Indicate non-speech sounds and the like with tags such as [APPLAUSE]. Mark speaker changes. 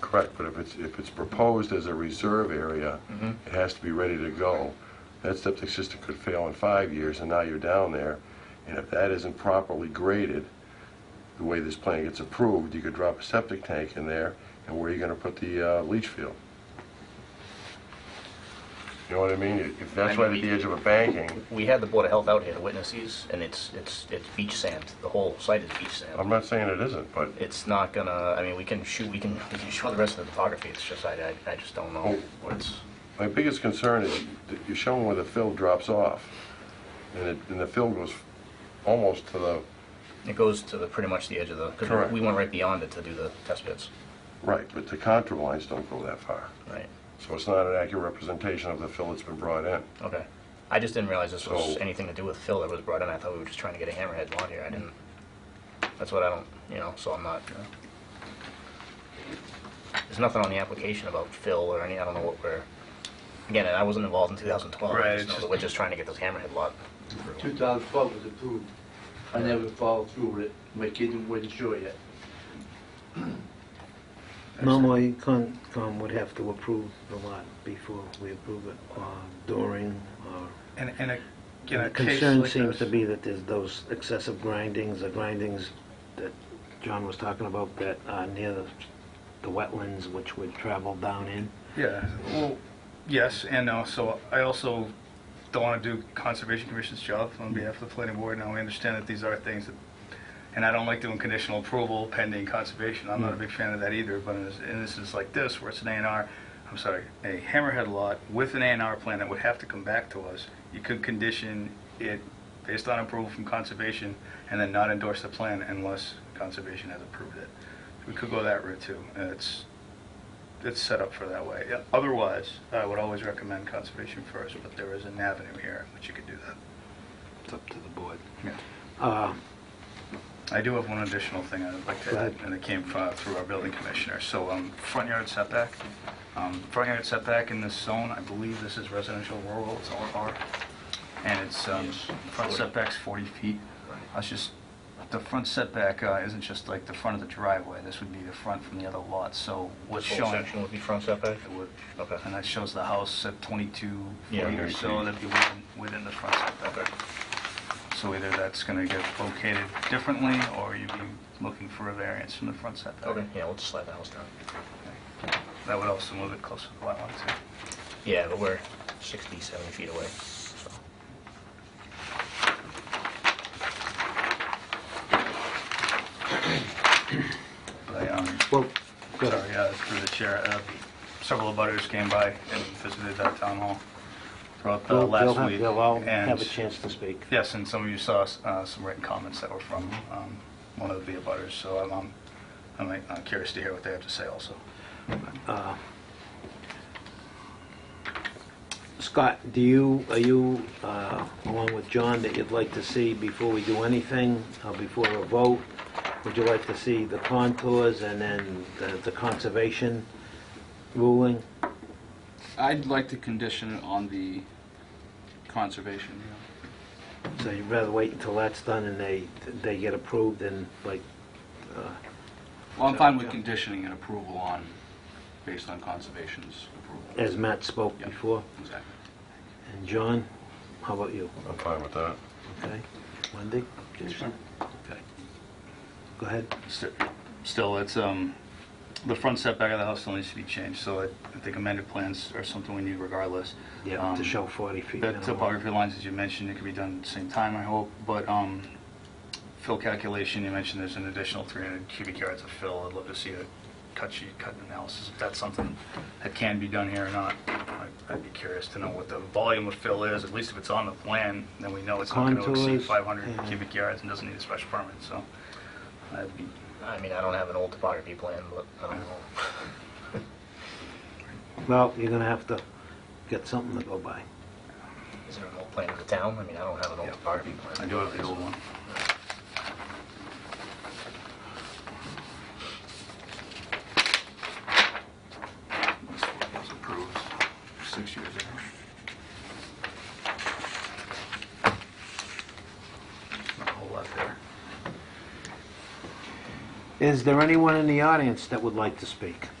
Speaker 1: Correct, but if it's, if it's proposed as a reserve area, it has to be ready to go. That septic system could fail in five years, and now you're down there, and if that isn't properly graded, the way this plan gets approved, you could drop a septic tank in there, and where are you gonna put the uh, leach field? You know what I mean? If that's right at the edge of a banking,
Speaker 2: We had the Board of Health out here to witness these, and it's, it's, it's beach sand. The whole site is beach
Speaker 1: I'm
Speaker 2: sand.
Speaker 1: not saying it isn't, but
Speaker 2: It's not gonna, I mean, we can shoot, we can, [LAUGHS] we can show the rest of the topography, it's just, I, I, I just don't know what's,
Speaker 1: My biggest concern is that you're showing where the fill drops off, and it, and the fill goes almost to the,
Speaker 2: it goes to the, pretty much the edge of the, because
Speaker 1: Correct.
Speaker 2: we went right beyond it to do the test pits.
Speaker 1: right, but the contour lines don't go that far.
Speaker 2: Right,
Speaker 1: So it's not an accurate representation of the fill that's been brought in.
Speaker 2: okay. I just didn't realize this was
Speaker 1: So-
Speaker 2: anything to do with fill that was brought in. I thought we were just trying to get a hammerhead lot here. I didn't, that's what I don't, you know, so I'm not, uh, there's nothing on the application about fill or any, I don't know what we're, again, I wasn't involved in 2012. I
Speaker 3: Right,
Speaker 2: just
Speaker 3: it's
Speaker 2: know that
Speaker 3: just-
Speaker 2: We're just trying to get this hammerhead lot.
Speaker 3: 2012 was approved. I never followed through with it. My kid wasn't sure yet.
Speaker 4: Normally, Concom um, would have to approve the lot before we approve it, Uh, or during, or...
Speaker 3: And, and a- in a
Speaker 4: The
Speaker 3: case
Speaker 4: concern
Speaker 3: like
Speaker 4: seems to
Speaker 3: this,
Speaker 4: be that there's those excessive grindings, the grindings that John was talking about that are near the the wetlands which would travel down in.
Speaker 3: yeah, well, yes and no. So I also don't want to do Conservation Commission's job on behalf of the planning board. Now, I understand that these are things that, and I don't like doing conditional approval pending conservation. I'm not a big fan of that either, but in this- in instances like this, where it's an A and R, I'm sorry, a hammerhead lot with an A and R plan that would have to come back to us, you could condition it based on approval from conservation and then not endorse the plan unless conservation has approved it. We could go that route too. and It's, it's set up for that way. Otherwise, I would always recommend conservation first, but there is an avenue here which you could do that.
Speaker 4: It's up to the board.
Speaker 3: Yeah.
Speaker 4: Uh,
Speaker 3: I do have one additional thing I'd like
Speaker 4: Go
Speaker 3: to add,
Speaker 4: ahead.
Speaker 3: and it came fro- through our building commissioner. So um, front yard setback, Um, front yard setback in this zone, I believe this is residential rural, it's R, and it's, um, front setback's 40 feet. I was just, the front setback uh, isn't just like the front of the driveway, this would be the front from the other lot, so what's
Speaker 2: This whole
Speaker 3: shown...
Speaker 2: section would be front setback?
Speaker 3: It would.
Speaker 2: Okay.
Speaker 3: And that shows the house at 22,
Speaker 2: Yeah.
Speaker 3: 40 or so, that'd be within, within the front setback.
Speaker 2: Okay.
Speaker 3: So either that's gonna get located differently, or you'd be looking for a variance from the front setback.
Speaker 2: Okay, yeah, we'll just slide the house down.
Speaker 3: That would also move it closer to lot line too.
Speaker 2: Yeah, but we're 60, 70 feet away, so.
Speaker 3: But, um,
Speaker 4: Well, go ahead.
Speaker 3: Sorry, uh, through the chair, uh, several abutters came by and visited that town hall throughout the
Speaker 4: They'll- they'll
Speaker 3: Uh, last
Speaker 4: have-
Speaker 3: week.
Speaker 4: They'll all
Speaker 3: and-
Speaker 4: have a chance to speak.
Speaker 3: Yes, and some of you saw uh, some written comments that were from um, one of the abutters, so I'm- I'm, I'm uh, curious to hear what they have to say also.
Speaker 4: Scott, do you, are you, uh, along with John, that you'd like to see before we do anything, uh, before a vote? Would you like to see the contours and then the- the conservation ruling?
Speaker 5: I'd like to condition it on the conservation,
Speaker 4: So you'd rather wait until that's done and they, they get approved and like,
Speaker 5: Well, I'm fine with conditioning an approval on, based on conservation's approval.
Speaker 4: as Matt spoke
Speaker 5: Yeah.
Speaker 4: before?
Speaker 5: Exactly.
Speaker 4: And John, how about you?
Speaker 1: I'm fine with that.
Speaker 4: Okay, Wendy?
Speaker 3: Okay.
Speaker 4: Go ahead.
Speaker 3: Sti- Still, it's, um, the front setback of the house still needs to be changed, so I I think amended plans are something we need regardless.
Speaker 4: Yeah,
Speaker 3: Um,
Speaker 4: to show 40 feet.
Speaker 3: The
Speaker 4: minimum.
Speaker 3: topography lines, as you mentioned, it could be done at the same time, I hope, but um, fill calculation, you mentioned there's an additional 300 cubic yards of fill. I'd love to see a cut sheet, cut analysis, if that's something that can be done here or not. I- I'd be curious to know what the volume of fill is, at least if it's on the plan, then we know it's not going to exceed
Speaker 4: Contours,
Speaker 3: 500
Speaker 4: yeah.
Speaker 3: cubic yards and doesn't need a special permit, so I'd be
Speaker 2: I mean, I don't have an old topography plan, but I don't know.
Speaker 4: Well, you're gonna have to get something to go by.
Speaker 2: Is there an old plan of the town? I mean, I don't have an old
Speaker 3: Yeah.
Speaker 2: topography plan.
Speaker 3: I do have the old one. This one was approved six years ago. Not a whole lot there.
Speaker 4: Is there anyone in the audience that would like to speak?